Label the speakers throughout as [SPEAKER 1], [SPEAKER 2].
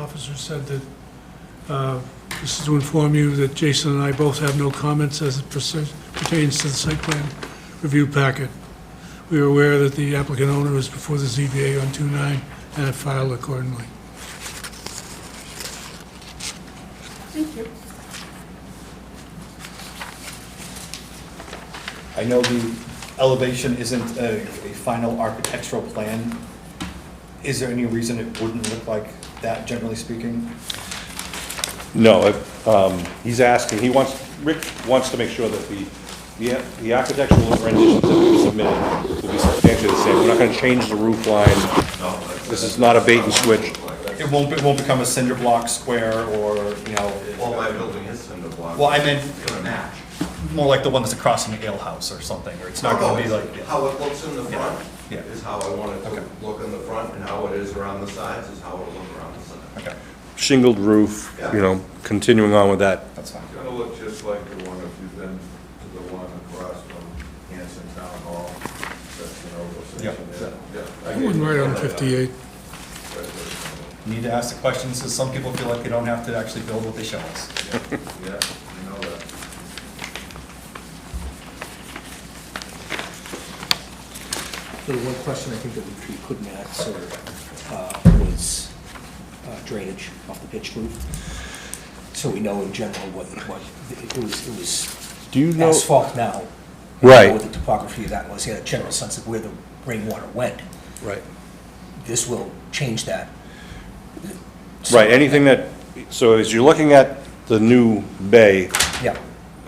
[SPEAKER 1] officer said that, uh, this is to inform you that Jason and I both have no comments as it persi- pertains to the site plan review packet. We are aware that the applicant owner is before the ZBA on 2-9 and have filed accordingly.
[SPEAKER 2] Thank you.
[SPEAKER 3] I know the elevation isn't a, a final architectural plan. Is there any reason it wouldn't look like that, generally speaking?
[SPEAKER 4] No, if, um, he's asking, he wants, Rick wants to make sure that the, the- the architectural renditions that we submitted will be substantially the same. We're not gonna change the roof line. This is not a bait and switch.
[SPEAKER 3] It won't, it won't become a cinder block square or, you
[SPEAKER 5] Well,
[SPEAKER 3] know,
[SPEAKER 5] my building is cinder block.
[SPEAKER 3] Well, I meant-
[SPEAKER 5] It's gonna match.
[SPEAKER 3] more like the one that's across from the ale house or something, or it's not gonna
[SPEAKER 5] Oh,
[SPEAKER 3] be like.
[SPEAKER 5] How it looks in the front
[SPEAKER 3] Yeah.
[SPEAKER 5] is how I want it
[SPEAKER 3] Okay.
[SPEAKER 5] to look in the front, and how it is around the sides is how it'll look around the sides.
[SPEAKER 3] Okay,
[SPEAKER 4] Shingled roof, you know, continuing on with that.
[SPEAKER 3] that's fine.
[SPEAKER 6] It's gonna look just like the one if you've been to the one across from Hanson Town Hall, that's an oval section
[SPEAKER 3] Yeah.
[SPEAKER 6] there. Yeah. I
[SPEAKER 1] I
[SPEAKER 6] gave
[SPEAKER 1] wouldn't
[SPEAKER 6] you
[SPEAKER 1] write
[SPEAKER 6] the
[SPEAKER 1] on
[SPEAKER 6] layout.
[SPEAKER 1] 58.
[SPEAKER 6] That's what it's
[SPEAKER 3] Need to ask the questions, because some people feel like they don't have to actually build what they show us.
[SPEAKER 6] gonna look. Yeah, you know that.
[SPEAKER 7] The one question I think that we couldn't answer uh, was uh, drainage off the pitched roof. So we know in general what, what, it was, it was
[SPEAKER 4] Do you know-
[SPEAKER 7] asphalt now. We
[SPEAKER 4] Right.
[SPEAKER 7] know What the topography of that was, He had a general sense of where the rainwater went.
[SPEAKER 4] Right.
[SPEAKER 7] This will change that.
[SPEAKER 4] Right, anything that, so as you're looking at the new bay,
[SPEAKER 7] Yeah,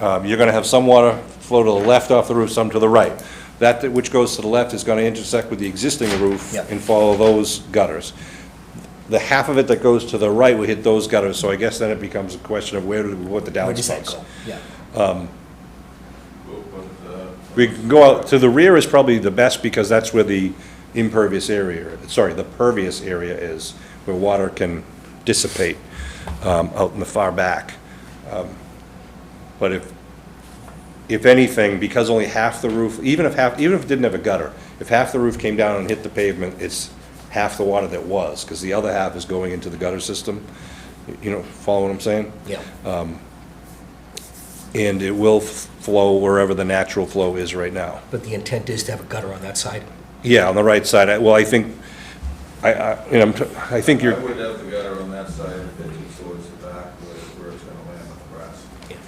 [SPEAKER 4] Um, You're going to have some water flow to the left off the roof, some to the right. That that which goes to the left is going to intersect with the existing roof
[SPEAKER 7] Yeah.
[SPEAKER 4] and follow those gutters. The half of it that goes to the right will hit those gutters, so I guess then it becomes a question of where do we put the
[SPEAKER 7] where does that
[SPEAKER 4] downspouts?
[SPEAKER 7] go? Yeah,
[SPEAKER 6] We'll put, uh,
[SPEAKER 4] We can go out, to the rear is probably the best because that's where the impervious area, sorry, the pervious area is, where water can dissipate um, out in the far back. Um, But if, if anything, because only half the roof, even if half, even if it didn't have a gutter, if half the roof came down and hit the pavement, it's half the water that was, because the other half is going into the gutter system. You know, follow what I'm saying?
[SPEAKER 7] yeah.
[SPEAKER 4] And it will f- flow wherever the natural flow is right now.
[SPEAKER 7] But the intent is to have a gutter on that side?
[SPEAKER 4] Yeah, on the right side. I- Well, I think, I, I, you know, I'm t- I think
[SPEAKER 6] I
[SPEAKER 4] you're,
[SPEAKER 6] would have the gutter on that side and pitch it towards the back where it's- where it's gonna land on the grass.
[SPEAKER 7] Yeah.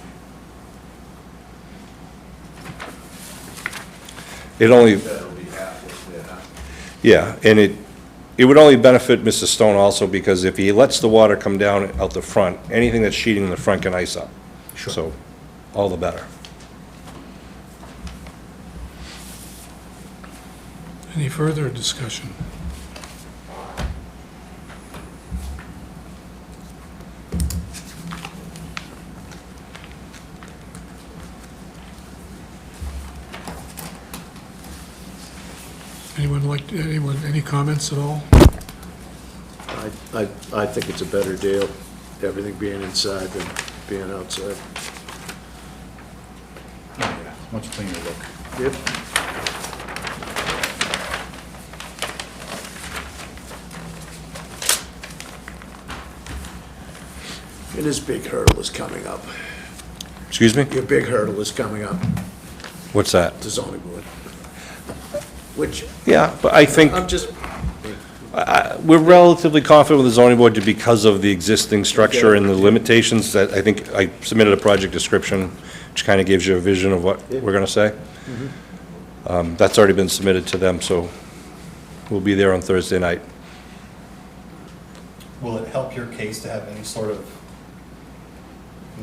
[SPEAKER 4] it only,
[SPEAKER 6] That'll be half what's there now.
[SPEAKER 4] yeah, and it, it would only benefit Mr. Stone also because if he lets the water come down out the front, anything that's sheeting in the front can ice up.
[SPEAKER 7] Sure.
[SPEAKER 4] So, all the better.
[SPEAKER 1] Any further discussion? Anyone like, anyone, any comments at all?
[SPEAKER 8] I, I I think it's a better deal, everything being inside than being outside.
[SPEAKER 3] Much cleaner look.
[SPEAKER 8] Yep. And this big hurdle is coming up.
[SPEAKER 4] Excuse me?
[SPEAKER 8] Your big hurdle is coming up,
[SPEAKER 4] What's that?
[SPEAKER 8] the zoning board. Which,
[SPEAKER 4] Yeah, but I think
[SPEAKER 8] I'm just,
[SPEAKER 4] we're relatively confident with the zoning board because of the existing structure and the limitations that, I think, I submitted a project description, which kind of gives you a vision of what we're going to say. Um, That's already been submitted to them, so we'll be there on Thursday night.
[SPEAKER 3] Will it help your case to have any sort of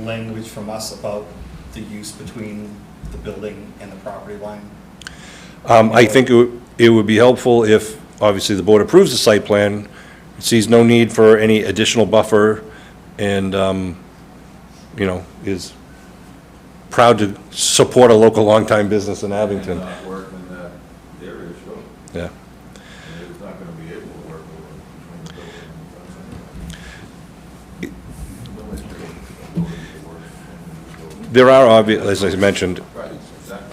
[SPEAKER 3] language from us about the use between the building and the property line?
[SPEAKER 4] Um, I think it would- it would be helpful if, obviously, the board approves the site plan, sees no need for any additional buffer, and, um, you know, is proud to support a local longtime business in
[SPEAKER 6] And
[SPEAKER 4] Abington.
[SPEAKER 6] not work in that area, so
[SPEAKER 4] Yeah.
[SPEAKER 6] it's not gonna be able to work over between the building and the fence. Nobody's gonna be able to work in the building.
[SPEAKER 4] There are obvious, as I mentioned,
[SPEAKER 6] Right, exactly.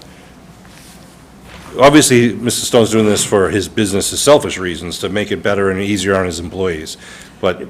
[SPEAKER 4] obviously, Mr. Stone's doing this for his business's selfish reasons, to make it better and easier on his employees. But